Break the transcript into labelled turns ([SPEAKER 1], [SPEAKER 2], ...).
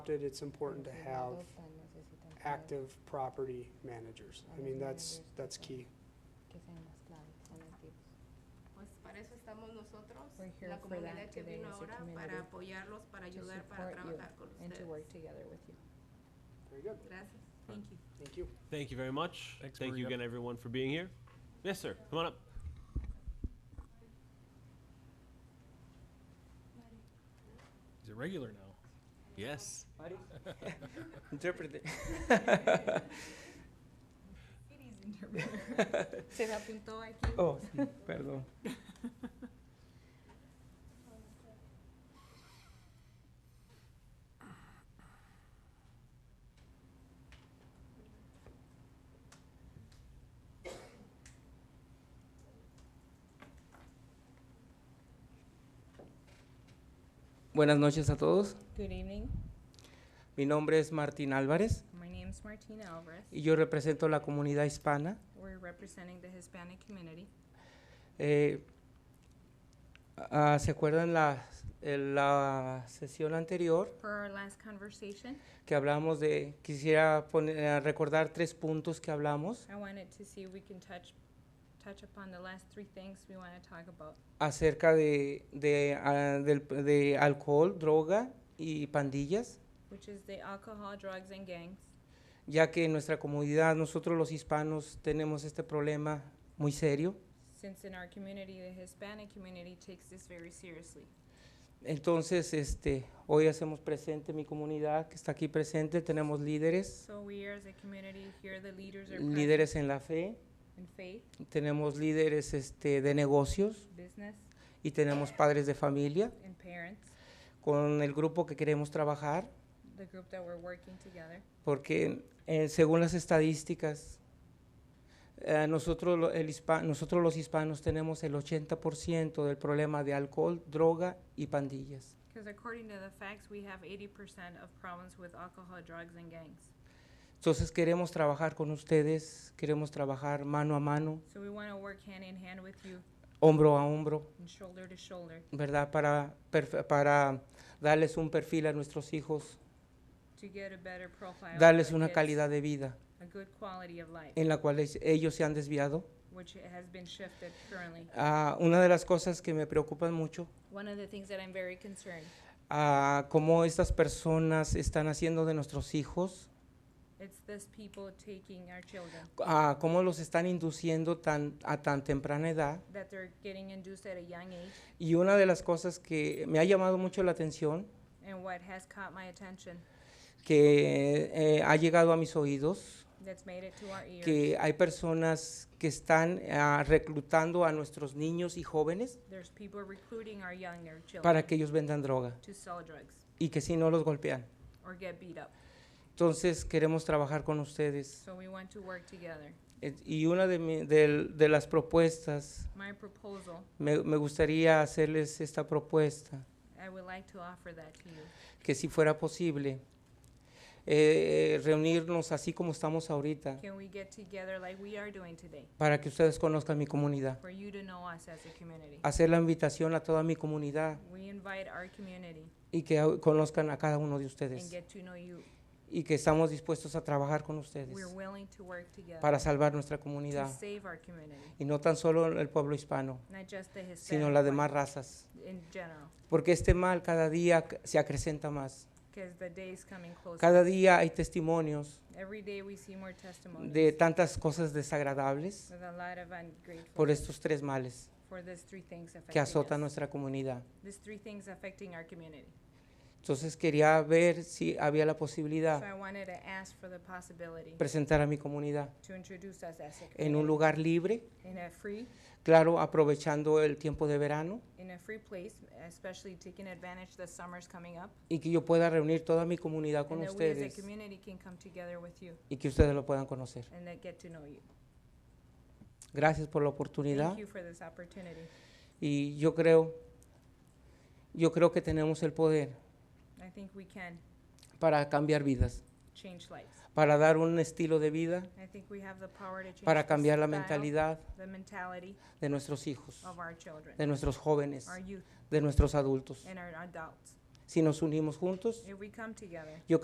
[SPEAKER 1] adopted, it's important to have active property managers. I mean, that's, that's key.
[SPEAKER 2] Pues para eso estamos nosotros,
[SPEAKER 3] We're here
[SPEAKER 2] la
[SPEAKER 3] for that
[SPEAKER 2] comunidad que
[SPEAKER 3] today
[SPEAKER 2] vino
[SPEAKER 3] as a
[SPEAKER 2] ahora,
[SPEAKER 3] community,
[SPEAKER 2] para apoyarlos, para
[SPEAKER 3] to
[SPEAKER 2] ayudar,
[SPEAKER 3] support
[SPEAKER 2] para
[SPEAKER 3] you
[SPEAKER 2] trabajar con
[SPEAKER 3] and to
[SPEAKER 2] ustedes.
[SPEAKER 3] work together with you.
[SPEAKER 1] Very good.
[SPEAKER 2] Gracias.
[SPEAKER 4] Thank you.
[SPEAKER 1] Thank you.
[SPEAKER 5] Thank you very much.
[SPEAKER 6] Thanks,
[SPEAKER 5] Thank you
[SPEAKER 6] Maria.
[SPEAKER 5] again, everyone, for being here. Yes, sir, come on up.
[SPEAKER 6] He's a regular now.
[SPEAKER 5] Yes.
[SPEAKER 7] Interpret it.
[SPEAKER 3] Se me apuntó aquí.
[SPEAKER 7] Oh, sí, perdón. Buenas noches a todos.
[SPEAKER 3] Good evening.
[SPEAKER 7] Mi nombre es Martín Álvarez
[SPEAKER 3] My name's Martina Alvarez.
[SPEAKER 7] y yo represento a la comunidad hispana.
[SPEAKER 3] We're representing the Hispanic community.
[SPEAKER 7] Eh, ah, ¿Se acuerdan la, en la sesión anterior
[SPEAKER 3] For our last conversation,
[SPEAKER 7] que hablamos de, quisiera poner- eh, recordar tres puntos que hablamos
[SPEAKER 3] I wanted to see if we can touch, touch upon the last three things we want to talk about.
[SPEAKER 7] acerca de, de, ah, del- de alcohol, droga y pandillas,
[SPEAKER 3] which is the alcohol, drugs, and gangs.
[SPEAKER 7] ya que en nuestra comunidad nosotros los hispanos tenemos este problema muy serio.
[SPEAKER 3] Since in our community, the Hispanic community takes this very seriously.
[SPEAKER 7] Entonces, este, hoy hacemos presente mi comunidad que está aquí presente, tenemos líderes,
[SPEAKER 3] So we as a community here, the leaders are present
[SPEAKER 7] líderes en la fe,
[SPEAKER 3] in faith,
[SPEAKER 7] tenemos líderes este, de negocios
[SPEAKER 3] business,
[SPEAKER 7] y tenemos padres de familia
[SPEAKER 3] and parents,
[SPEAKER 7] con el grupo que queremos trabajar,
[SPEAKER 3] the group that we're working together.
[SPEAKER 7] porque eh, según las estadísticas, eh, nosotros, lo- el hispa- nosotros los hispanos tenemos el 80% del problema de alcohol, droga y pandillas.
[SPEAKER 3] Because according to the facts, we have 80% of problems with alcohol, drugs, and gangs.
[SPEAKER 7] Entonces queremos trabajar con ustedes, queremos trabajar mano a mano,
[SPEAKER 3] So we want to work hand in hand with you
[SPEAKER 7] hombro a hombro,
[SPEAKER 3] and shoulder to shoulder
[SPEAKER 7] ¿verdad? Para, perf- para darles un perfil a nuestros hijos,
[SPEAKER 3] to get a better profile. of
[SPEAKER 7] darles
[SPEAKER 3] our
[SPEAKER 7] una
[SPEAKER 3] kids,
[SPEAKER 7] calidad de vida
[SPEAKER 3] A good quality of life,
[SPEAKER 7] en la cual es- ellos se han desviado.
[SPEAKER 3] which has been shifted currently.
[SPEAKER 7] Ah, una de las cosas que me preocupan mucho,
[SPEAKER 3] One of the things that I'm very concerned
[SPEAKER 7] ah, cómo estas personas están haciendo de nuestros hijos,
[SPEAKER 3] It's this people taking our children,
[SPEAKER 7] ah, cómo los están induciendo tan, a tan temprana edad.
[SPEAKER 3] that they're getting induced at a young age.
[SPEAKER 7] Y una de las cosas que me ha llamado mucho la atención,
[SPEAKER 3] And what has caught my attention,
[SPEAKER 7] que eh, ha llegado a mis oídos,
[SPEAKER 3] that's made it to our ears,
[SPEAKER 7] que hay personas que están ah, reclutando a nuestros niños y jóvenes
[SPEAKER 3] there's people recruiting our younger children
[SPEAKER 7] para que ellos vendan droga
[SPEAKER 3] to sell drugs
[SPEAKER 7] y que si no los golpean.
[SPEAKER 3] or get beat up.
[SPEAKER 7] Entonces queremos trabajar con ustedes.
[SPEAKER 3] So we want to work together.
[SPEAKER 7] Eh, Y una de, mi- del- de las propuestas
[SPEAKER 3] My proposal,
[SPEAKER 7] Me, me gustaría hacerles esta propuesta,
[SPEAKER 3] I would like to offer that to you,
[SPEAKER 7] que si fuera posible, eh, reunirnos así como estamos ahorita,
[SPEAKER 3] can we get together like we are doing today,
[SPEAKER 7] para que ustedes conozcan mi comunidad.
[SPEAKER 3] for you to know us as a community?
[SPEAKER 7] Hacer la invitación a toda mi comunidad
[SPEAKER 3] We invite our community
[SPEAKER 7] y que au- conozcan a cada uno de
[SPEAKER 3] and
[SPEAKER 7] ustedes.
[SPEAKER 3] get to know you.
[SPEAKER 7] Y que estamos dispuestos a trabajar con ustedes
[SPEAKER 3] We're willing to work together
[SPEAKER 7] para salvar nuestra
[SPEAKER 3] to
[SPEAKER 7] comunidad.
[SPEAKER 3] save our community,
[SPEAKER 7] Y no tan solo el pueblo hispano,
[SPEAKER 3] not just the
[SPEAKER 7] sino las
[SPEAKER 3] Hispanic one,
[SPEAKER 7] demás razas.
[SPEAKER 3] in general.
[SPEAKER 7] Porque este mal cada día c- se acrecenta más.
[SPEAKER 3] Because the day is coming closer.
[SPEAKER 7] Cada día hay testimonios
[SPEAKER 3] Every day we see more testimonies
[SPEAKER 7] de tantas cosas desagradables
[SPEAKER 3] with a lot of ungratefulness
[SPEAKER 7] por estos tres males
[SPEAKER 3] for these three things affecting
[SPEAKER 7] que
[SPEAKER 3] us.
[SPEAKER 7] azotan nuestra comunidad.
[SPEAKER 3] These three things affecting our community.
[SPEAKER 7] Entonces quería ver si había la
[SPEAKER 3] So
[SPEAKER 7] posibilidad
[SPEAKER 3] I wanted to ask for the possibility
[SPEAKER 7] de presentar a mi comunidad
[SPEAKER 3] to introduce us as a
[SPEAKER 7] en un
[SPEAKER 3] community
[SPEAKER 7] lugar libre,
[SPEAKER 3] in a free,
[SPEAKER 7] claro, aprovechando el tiempo de verano
[SPEAKER 3] in a free place, especially taking advantage the summer's coming up,
[SPEAKER 7] y que yo pueda reunir toda mi comunidad con
[SPEAKER 3] and that we as a
[SPEAKER 7] ustedes
[SPEAKER 3] community can come together with you
[SPEAKER 7] y que ustedes lo puedan conocer.
[SPEAKER 3] and that get to know you.
[SPEAKER 7] Gracias por la oportunidad
[SPEAKER 3] Thank you for this opportunity.
[SPEAKER 7] y yo creo, yo creo que tenemos el poder
[SPEAKER 3] I think we can
[SPEAKER 7] para cambiar vidas,
[SPEAKER 3] change lives.
[SPEAKER 7] para dar un estilo de vida,
[SPEAKER 3] I think we have the power to change
[SPEAKER 7] para
[SPEAKER 3] the
[SPEAKER 7] cambiar la
[SPEAKER 3] style,
[SPEAKER 7] mentalidad
[SPEAKER 3] the mentality
[SPEAKER 7] de nuestros hijos,
[SPEAKER 3] Oh, of our children,
[SPEAKER 7] de nuestros jóvenes,
[SPEAKER 3] our youth, Eh.
[SPEAKER 7] de nuestros adultos.
[SPEAKER 3] and our adults.
[SPEAKER 8] si nos unimos juntos.
[SPEAKER 7] If we come together.